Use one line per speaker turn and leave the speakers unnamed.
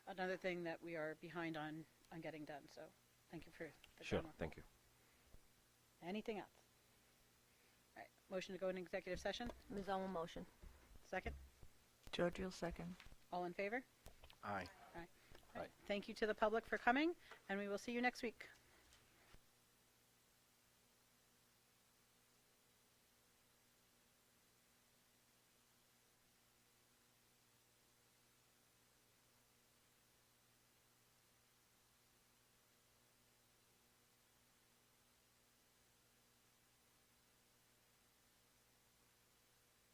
another thing that we are behind on, on getting done, so thank you for the
Sure,
drama.
thank you.
Anything else? All right, motion to go into executive session,
Ms. Owen motion.
second,
George will second.
all in favor?
Aye.
All right. Thank you to the public for coming, and we will see you next week.